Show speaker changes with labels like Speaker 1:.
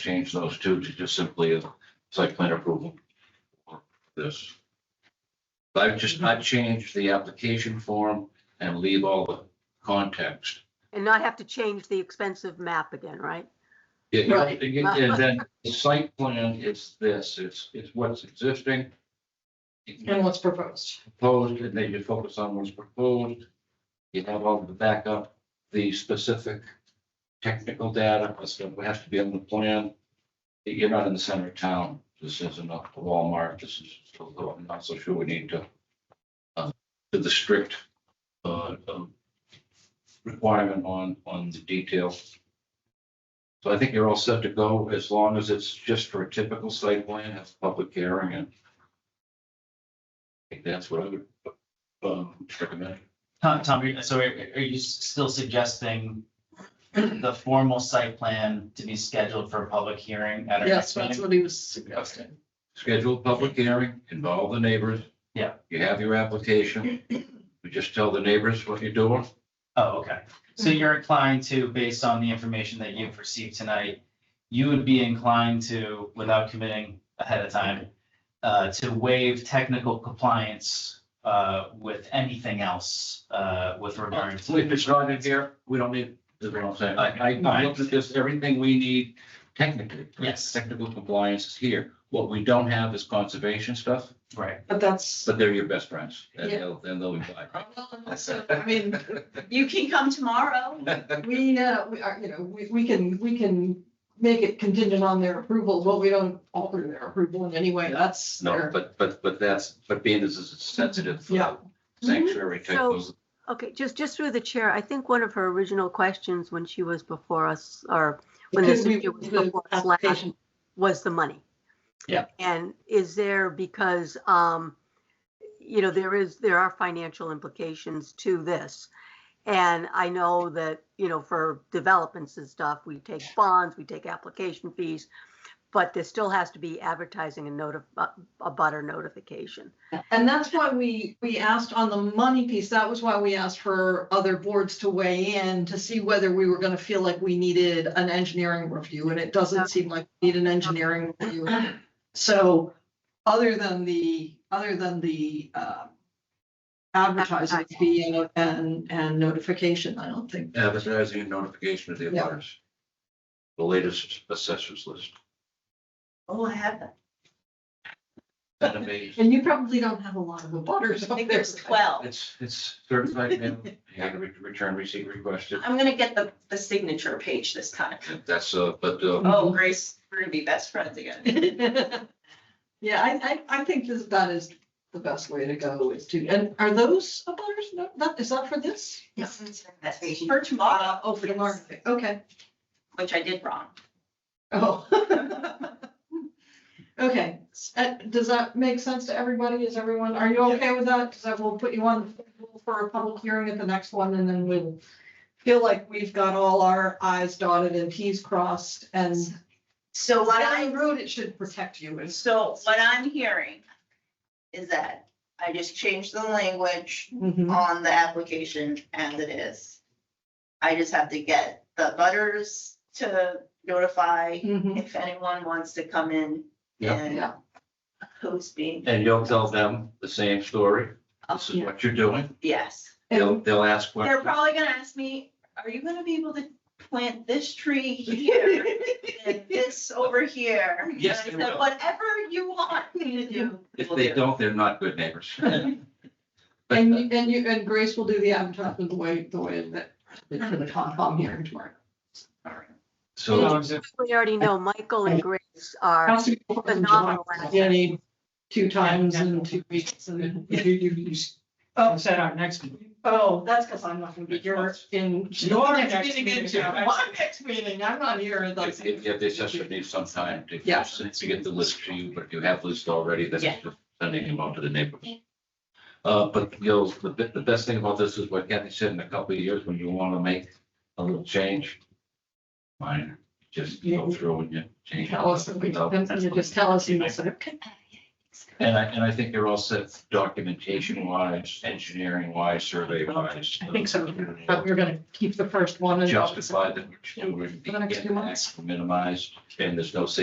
Speaker 1: change those two to just simply a site plan approval. for This. I've just not changed the application form and leave all the context.
Speaker 2: And not have to change the expensive map again, right?
Speaker 1: Yeah, you-
Speaker 3: Right.
Speaker 1: you- And then the site plan is this, it's, it's what's existing.
Speaker 3: and what's proposed.
Speaker 1: proposed, and then you focus on what's proposed. You have all the backup, the specific technical data, that's what has to be on the plan. You're not in the center of town, this isn't a Walmart, this is, although I'm not so sure we need to uh, to the strict uh, um, requirement on, on the detail. So I think you're all set to go, as long as it's just for a typical site plan, have a public hearing and I think that's what I would, um, recommend.
Speaker 4: Tom, Tom, you're- so are, are you s- still suggesting the formal site plan to be scheduled for a public hearing at our
Speaker 3: Yes,
Speaker 4: next
Speaker 3: that's
Speaker 4: meeting?
Speaker 3: what he was suggesting.
Speaker 1: Schedule a public hearing, involve the neighbors.
Speaker 4: Yeah.
Speaker 1: You have your application. You just tell the neighbors what you're doing.
Speaker 4: Oh, okay. So
Speaker 3: Mm-hmm.
Speaker 4: you're inclined to, based on the information that you've received tonight, you would be inclined to, without committing ahead of time, uh, to waive technical compliance, uh, with anything else, uh, with regard to.
Speaker 1: If it's not in here, we don't need, is what I'm saying. I, I- I
Speaker 4: No.
Speaker 1: looked at this, everything we need technically.
Speaker 4: Yes.
Speaker 1: Technical compliance is here. What we don't have is conservation stuff,
Speaker 4: Right.
Speaker 3: But that's,
Speaker 1: but they're your best friends. And
Speaker 3: Yeah.
Speaker 1: they'll, and they'll invite.
Speaker 3: Well, so, I mean, you can come tomorrow. We, uh, we are, you know, we, we can, we can make it contingent on their approval, but we don't alter their approval in any way. That's
Speaker 1: No,
Speaker 3: their,
Speaker 1: but, but, but that's, but being this is a sensitive. uh,
Speaker 3: Yeah.
Speaker 1: Sanctuary type
Speaker 2: So-
Speaker 1: of.
Speaker 2: Okay, just, just through the chair, I think one of her original questions when she was before us, or when this
Speaker 3: because we,
Speaker 2: issue was
Speaker 3: the
Speaker 2: before us last,
Speaker 3: application,
Speaker 2: was the money.
Speaker 4: Yeah.
Speaker 2: And is there, because, um, you know, there is, there are financial implications to this. And I know that, you know, for developments and stuff, we take bonds, we take application fees, but there still has to be advertising and notif, a butter notification.
Speaker 3: and that's why we, we asked on the money piece, that was why we asked for other boards to weigh in to see whether we were gonna feel like we needed an engineering review, and it doesn't seem like we need an engineering review. So, other than the, other than the, uh, advertising
Speaker 2: Advertising.
Speaker 3: fee and- and, and notification, I don't think.
Speaker 1: advertising and notification of the
Speaker 3: Yeah.
Speaker 1: abutters. The latest assessors list.
Speaker 3: Oh, I have that.
Speaker 1: That amazing.
Speaker 3: And you probably don't have a lot of abutters.
Speaker 5: I think there's twelve.
Speaker 1: It's, it's certified mail. You had a re- return receipt requested.
Speaker 5: I'm gonna get the, the signature page this time.
Speaker 1: That's, uh, but, uh,
Speaker 5: Oh, Grace, we're gonna be best friends again.
Speaker 3: Yeah, I, I, I think this, that is the best way to go is to, and are those abutters, no, that, is that for this?
Speaker 5: For tomorrow,
Speaker 3: Uh, Oh, for tomorrow, okay,
Speaker 5: which I did wrong.
Speaker 3: oh. Okay, S- uh, does that make sense to everybody? Is everyone, are you okay with that? Cause I will put you on the schedule for a public hearing at the next one and then we'll feel like we've got all our i's dotted and t's crossed and
Speaker 5: So what
Speaker 3: down the
Speaker 5: I'm,
Speaker 3: road, it should protect you. It's-
Speaker 5: so what I'm hearing is that I just changed the language
Speaker 3: Mm-hmm.
Speaker 5: on the application as it is. I just have to get the butters to notify
Speaker 3: Mhm.
Speaker 5: if anyone wants to come in
Speaker 1: Yeah.
Speaker 5: and
Speaker 3: Yeah.
Speaker 5: who's being,
Speaker 1: and you'll tell them the same story. This is
Speaker 3: Yeah.
Speaker 1: what you're doing.
Speaker 5: yes.
Speaker 1: They'll, they'll ask
Speaker 5: They're
Speaker 1: questions.
Speaker 5: probably gonna ask me, are you gonna be able to plant this tree here and this over here?
Speaker 1: Yes,
Speaker 5: And I
Speaker 1: they
Speaker 5: said,
Speaker 1: will.
Speaker 5: Whatever you want me to do.
Speaker 1: If
Speaker 5: we'll
Speaker 1: they
Speaker 5: do."
Speaker 1: don't, they're not good neighbors. But,
Speaker 3: And
Speaker 1: uh,
Speaker 3: you, and you, and Grace will do the advertisement the way, the way that, for the Concom hearing tomorrow.
Speaker 1: So,
Speaker 2: We already know Michael and Grace are
Speaker 3: Has to be before the July,
Speaker 2: Phenomenal.
Speaker 3: You need two times in two weeks and.
Speaker 6: If you, you, you s-
Speaker 3: Oh.
Speaker 6: said our next meeting.
Speaker 3: Oh, that's because I'm not gonna be here in.
Speaker 6: Your next meeting, yeah.
Speaker 3: My next meeting, I'm not here.
Speaker 1: if,
Speaker 3: that's-
Speaker 1: if if the assessor needs some time to,
Speaker 3: Yeah.
Speaker 1: to get the list to you, but if you have list already, then
Speaker 5: Yeah.
Speaker 1: it's just sending them out to the neighbors. Uh, but you know, the, be- the best thing about this is what Kathy said in a couple of years, when you want to make a little change. Minor, just go through and you change.
Speaker 3: Tell us, and we- and you just tell us, you say, okay.
Speaker 1: And I, and I think they're all set documentation wise, engineering wise, survey wise.
Speaker 3: I think so, but we're gonna keep the first one. and-
Speaker 1: Justified that we're doing
Speaker 3: For the next few months.
Speaker 1: the minimized, and there's no safety